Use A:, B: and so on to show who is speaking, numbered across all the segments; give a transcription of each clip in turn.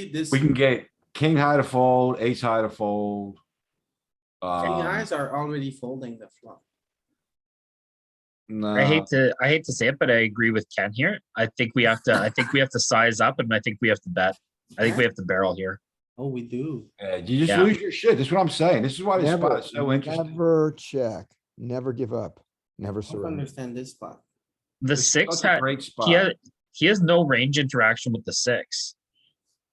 A: This,
B: We can
A: king
B: get king high to fold, ace high to fold. Um,
A: eyes are already folding the flop.
C: I
B: nah,
C: hate to I hate to say it, but I agree with Ken here. I think we have to I think we have to size up and I think we have to bet. I think we have to barrel here.
A: Oh, we do.
B: yeah, you just
C: Yeah.
B: lose your shit. That's what I'm saying. This is why this
D: Never,
B: spot is so interesting.
D: never check, never give up, never
A: I don't
D: surrender.
A: understand this spot.
C: The
B: This is
C: six
B: such a
C: had
B: Great
C: he
B: spot.
C: had he has no range interaction with the six.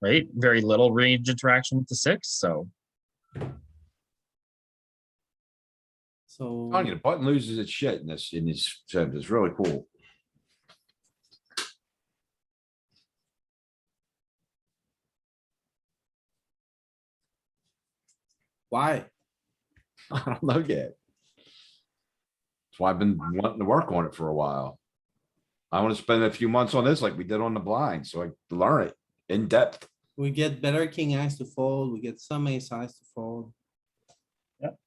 C: Right? Very little range interaction with the six. So
A: So
B: Telling you, the button loses its shit in this, in these terms. It's really cool.
A: why?
B: I don't know yet. That's why I've been wanting to work on it for a while. I want to spend a few months on this like we did on the blind, so I learn it in depth.
A: We get better king eyes to fold, we get some ace eyes to fold.
C: Yep.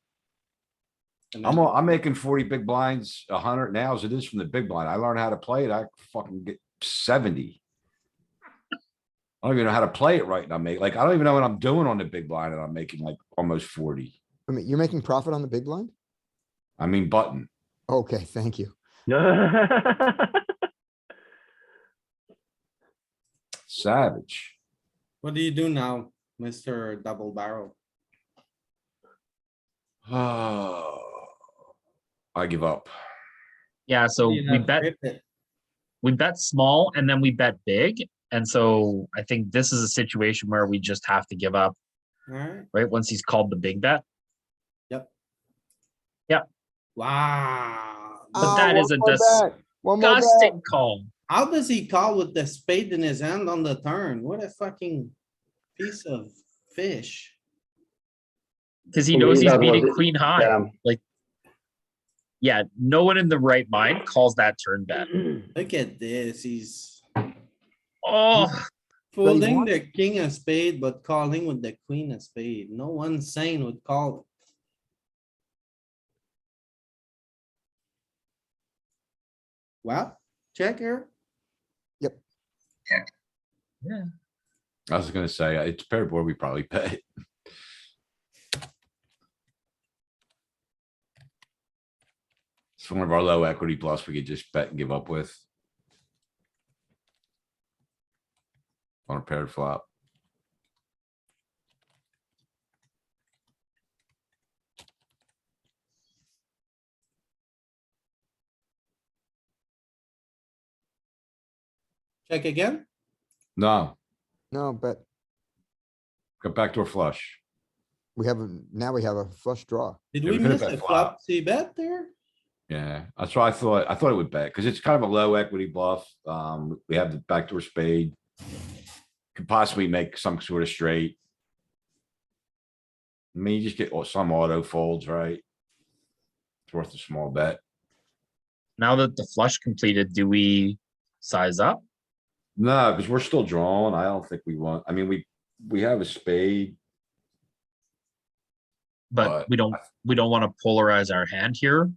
A: And
B: I'm,
A: then-
B: a- I'm making forty big blinds, a hundred now as it is from the big blind. I learned how to play it. I fucking get seventy. I don't even know how to play it right now, mate. Like, I don't even know what I'm doing on the big blind and I'm making like almost forty.
D: I mean, you're making profit on the big blind?
B: I mean, button.
D: Okay, thank you.
B: Savage.
A: What do you do now, Mister Double Barrel?
B: Oh. I give up.
C: yeah, so
A: You
C: we
A: have
C: bet
A: ripped it.
C: we bet small and then we bet big. And so I think this is a situation where we just have to give up,
A: Alright,
C: right? Once he's called the big bet.
A: wow.
C: But that is a
D: One more Ah, bet.
C: Disgusting call.
A: How does he call with the spade in his hand on the turn? What a fucking piece of fish.
C: Because he
E: Well,
C: knows
E: you
C: he's
E: got one
C: beating
E: that-
C: queen high.
E: Yeah.
C: Yeah, no one in the right mind calls that turn bet.
A: Look at this, he's
C: Oh,
D: he
A: folding
D: wants-
A: the king of spade, but calling with the queen of spade. No one sane would call. Well, check here.
B: I was gonna say, uh, it's paired board, we probably pay. It's one of our low equity bluffs we could just bet and give up with. On a paired flop.
A: Check again.
B: No,
D: No, but
B: go backdoor flush.
D: we have, a now we have a flush draw.
A: Did
B: Yeah,
A: we
B: we could
A: miss
B: have
A: a
B: bet
A: flop
B: flop.
A: C bet there?
B: Yeah, that's why I thought, I thought it would bet, because it's kind of a low equity bluff. Um, we have the backdoor spade. Could possibly make some sort of straight. I mean, you just get au- some auto folds, right? It's worth a small bet.
C: now that the flush completed, do we size up?
B: No, because we're still drawing. I don't think we want, I mean, we, we have a spade.
C: But
B: But
C: we don't, we don't want to polarize our hand here.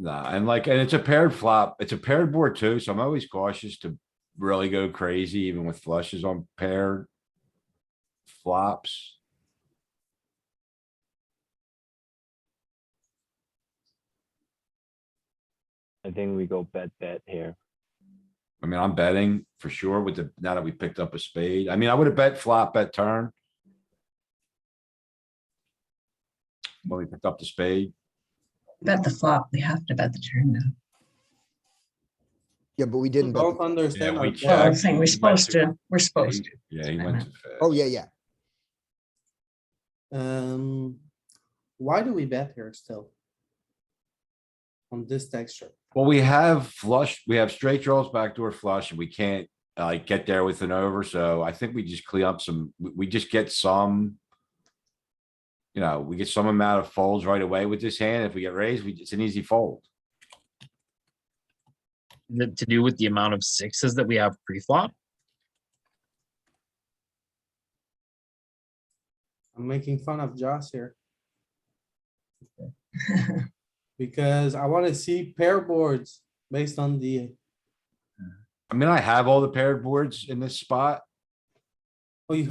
B: Nah, and like, and it's a paired flop. It's a paired board too, so I'm always cautious to really go crazy even with flushes on paired flops.
E: I think we go bet bet here.
B: I mean, I'm betting for sure with the, now that we picked up a spade. I mean, I would have bet flop bet turn. When we picked up the spade,
F: Bet the flop. We have to bet the turn now.
D: Yeah, but we
A: We
D: didn't bet.
A: Both
D: the-
A: understand.
B: Yeah,
A: our
B: we Mm.
A: bet.
F: Well, I'm
B: check.
F: saying we're supposed to, we're supposed to.
B: yeah, he
F: I
B: went
F: know.
B: to.
D: Oh, yeah, yeah.
A: Um, why do we bet here still? On this texture,
B: Well, we have flush, we have straight draws, backdoor flush, and we can't uh get there with an over, so I think we just clean up some, we, we just get some. You know, we get some amount of folds right away with this hand. If we get raised, we, it's an easy fold.
C: Th- To do with the amount of sixes that we have pre-flop?
A: I'm making fun of Joss here. Because I wanna see pair boards based on the,
B: I mean, I have all the paired boards in this spot.